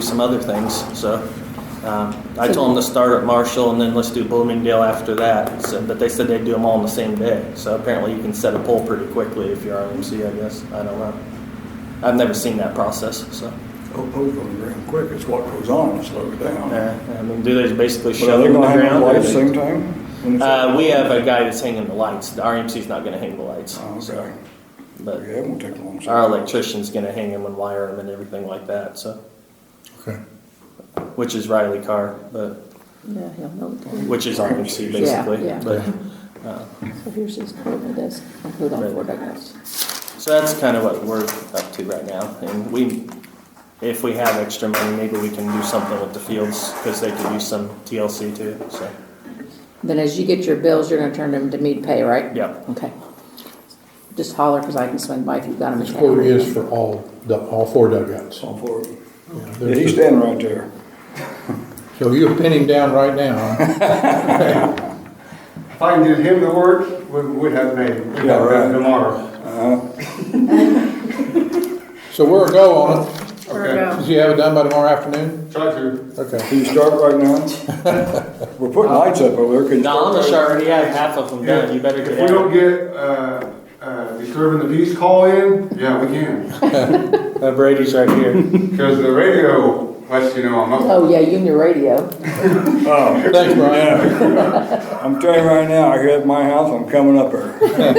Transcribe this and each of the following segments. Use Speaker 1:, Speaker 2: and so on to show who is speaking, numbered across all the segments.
Speaker 1: do some other things, so. um, I told them to start at Marshall and then let's do Bloomingdale after that, so, but they said they'd do them all on the same day. So apparently you can set a poll pretty quickly if you're RMC, I guess, I don't know. I've never seen that process, so.
Speaker 2: Those goes real quick, it's what goes on that slows down. But
Speaker 1: Uh, I mean, do they basically
Speaker 2: Are
Speaker 1: shove
Speaker 2: they
Speaker 1: them in
Speaker 2: gonna
Speaker 1: the
Speaker 2: hang
Speaker 1: ground?
Speaker 2: the
Speaker 1: or
Speaker 2: lights
Speaker 1: they-
Speaker 2: same time?
Speaker 1: Uh, we have a guy that's hanging the lights. The RMC's not gonna hang the lights.
Speaker 2: Oh,
Speaker 1: so,
Speaker 2: Okay,
Speaker 1: But
Speaker 2: yeah, it won't take long. so-
Speaker 1: our electrician's gonna hang them and wire them and everything like that, so,
Speaker 3: Okay.
Speaker 1: which is Riley Carr, but,
Speaker 4: Yeah, he'll know. what to do.
Speaker 1: which is RMC
Speaker 4: Yeah,
Speaker 1: basically.
Speaker 4: yeah.
Speaker 1: But,
Speaker 4: So here's his portable desk, I'll put it on
Speaker 1: Right.
Speaker 4: for diagnosis.
Speaker 1: so that's kind of what we're up to right now. And we, if we have extra money, maybe we can do something with the fields, cause they could use some TLC too, so,
Speaker 4: Then as you get your bills, you're gonna turn them to me to pay, right?
Speaker 1: yeah.
Speaker 4: Okay. Just holler, cause I can swing by if you've got them.
Speaker 3: This quote is for all, dug- all four dugouts.
Speaker 2: All four of them.
Speaker 3: Yeah,
Speaker 2: Yeah,
Speaker 3: there's
Speaker 2: he's
Speaker 3: the-
Speaker 2: standing right there.
Speaker 3: So you'll pin him down right now, huh?
Speaker 5: If I can give him the word, we would have made it. We'd
Speaker 2: Yeah,
Speaker 5: have
Speaker 2: right.
Speaker 5: it tomorrow.
Speaker 3: So we're a go on it.
Speaker 5: Okay.
Speaker 3: Does he have it done by tomorrow afternoon?
Speaker 5: Try to.
Speaker 3: Okay.
Speaker 2: Can you start right now? We're putting lights up over there. Can you start
Speaker 1: Don,
Speaker 2: right
Speaker 1: I already have half of them done. You better
Speaker 5: If we
Speaker 1: get
Speaker 5: don't
Speaker 1: out.
Speaker 5: get, uh, uh, disturbing the peace call in, yeah, we can.
Speaker 1: Uh, Brady's right here.
Speaker 5: Because the radio lets you know I'm up.
Speaker 4: Oh, yeah, you and your radio.
Speaker 3: Thanks, Brian.
Speaker 2: Oh, I'm telling you right now, here at my house, I'm coming up there.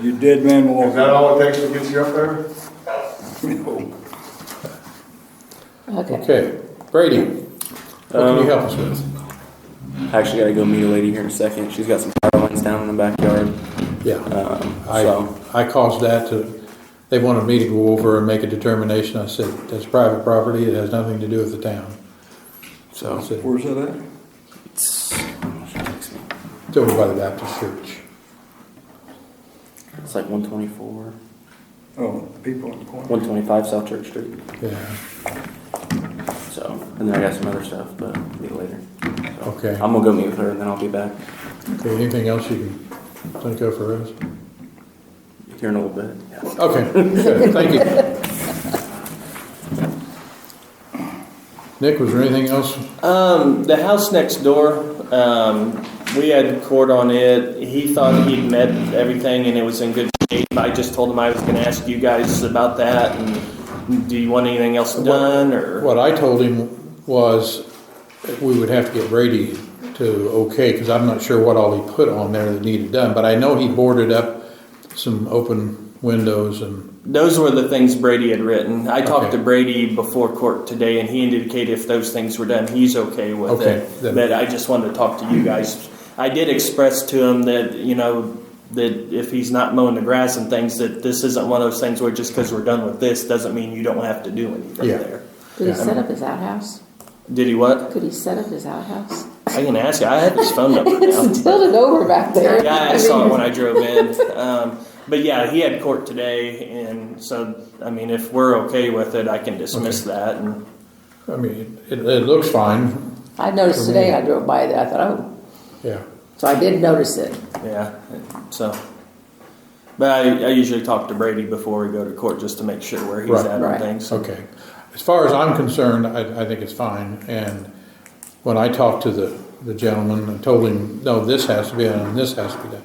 Speaker 2: You dead man
Speaker 5: Is
Speaker 2: walking.
Speaker 5: that all it takes to get you up there?
Speaker 4: Okay.
Speaker 3: Okay, Brady, what can you help us with?
Speaker 6: I actually gotta go meet a lady here in a second. She's got some power lines down in the backyard.
Speaker 3: Yeah,
Speaker 6: Um, so
Speaker 3: I, I caused that to, they wanted me to go over and make a determination. I said, that's private property, it has nothing to do with the town. So, it's
Speaker 2: Where's that at?
Speaker 6: it's,
Speaker 3: over by the Baptist church.
Speaker 6: it's like 124,
Speaker 2: Oh, people in the corner.
Speaker 6: 125 South Church Street.
Speaker 3: Yeah,
Speaker 6: So, and then I got some other stuff, but meet later. So,
Speaker 3: Okay.
Speaker 6: I'm gonna go meet with her and then I'll be back
Speaker 3: okay, anything else you can think of for us?
Speaker 6: here in a little bit. Yeah.
Speaker 3: Okay, good, thank you. Nick, was there anything else?
Speaker 1: Um, the house next door, um, we had court on it. He thought he'd met everything and it was in good shape. I just told him I was gonna ask you guys about that and do you want anything else done or?
Speaker 3: What I told him was that we would have to get Brady to okay, because I'm not sure what all he put on there that needed done, but I know he boarded up some open windows and,
Speaker 1: Those were the things Brady had written. I talked
Speaker 3: Okay.
Speaker 1: to Brady before court today and he indicated if those things were done, he's okay with
Speaker 3: Okay,
Speaker 1: it.
Speaker 3: then-
Speaker 1: But I just wanted to talk to you guys. I did express to him that, you know, that if he's not mowing the grass and things, that this isn't one of those things where just because we're done with this doesn't mean you don't have to do anything
Speaker 3: Yeah.
Speaker 1: there.
Speaker 4: Could he set up his outhouse?
Speaker 1: Did he what?
Speaker 4: Could he set up his outhouse?
Speaker 1: I can ask you. I have his phone number now.
Speaker 4: It's tilted over back there.
Speaker 1: Yeah, I
Speaker 4: mean,
Speaker 1: saw it when I drove in. Um, but yeah, he had court today, and so I mean, if we're okay with it, I can dismiss that. And
Speaker 3: I mean, it, it looks fine,
Speaker 4: I noticed
Speaker 3: For me.
Speaker 4: today, I drove by that, I thought, oh,
Speaker 3: yeah.
Speaker 4: so I did notice it.
Speaker 1: yeah, so. But I, I usually talk to Brady before we go to court just to make sure where he's
Speaker 3: Right.
Speaker 1: at
Speaker 4: Right.
Speaker 1: and things.
Speaker 3: Okay. As far as I'm concerned, I, I think it's fine, and when I talked to the, the gentleman, I told him, no, this has to be done, and this has to be done,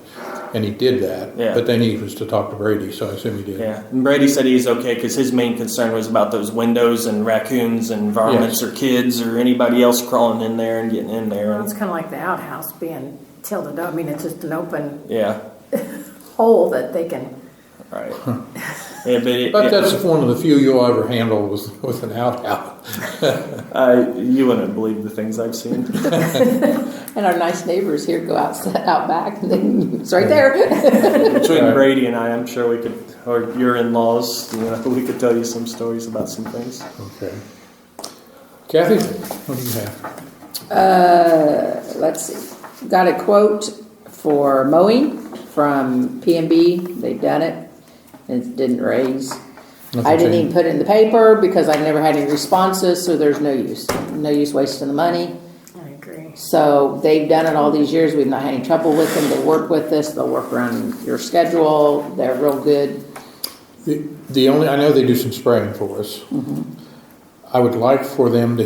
Speaker 3: and he did that.
Speaker 1: Yeah.
Speaker 3: But then he was to talk to Brady, so I assume he did.
Speaker 1: Yeah, and Brady said he's okay because his main concern was about those windows and raccoons and varmints
Speaker 3: Yes.
Speaker 1: or kids or anybody else crawling in there and getting in there.
Speaker 7: Well, It's
Speaker 1: And,
Speaker 7: kind of like the outhouse being tilted up. I mean, it's just an open
Speaker 1: yeah,
Speaker 7: hole that they can,
Speaker 1: right. Yeah, but, it,
Speaker 3: But
Speaker 1: it-
Speaker 3: that's one of the few you'll ever handle with, with an outhouse.
Speaker 1: Uh, you wouldn't believe the things I've seen.
Speaker 4: And our nice neighbors here go out, out back, and then it's right there.
Speaker 1: Between
Speaker 3: Right.
Speaker 1: Brady and I, I'm sure we could, or your in-laws, you know, we could tell you some stories about some things.
Speaker 3: Okay. Kathy, what do you have?
Speaker 4: Uh, let's see, got a quote for mowing from P and B, they've done it, it didn't raise. I
Speaker 3: Nothing
Speaker 4: didn't even
Speaker 3: changed.
Speaker 4: put it in the paper because I never had any responses, so there's no use, no use wasting the money.
Speaker 7: I agree.
Speaker 4: So they've done it all these years. We've not had any trouble with them. They work with us. They'll work around your schedule. They're real good.
Speaker 3: The, the only, I know they do some spraying for us. I would like for them to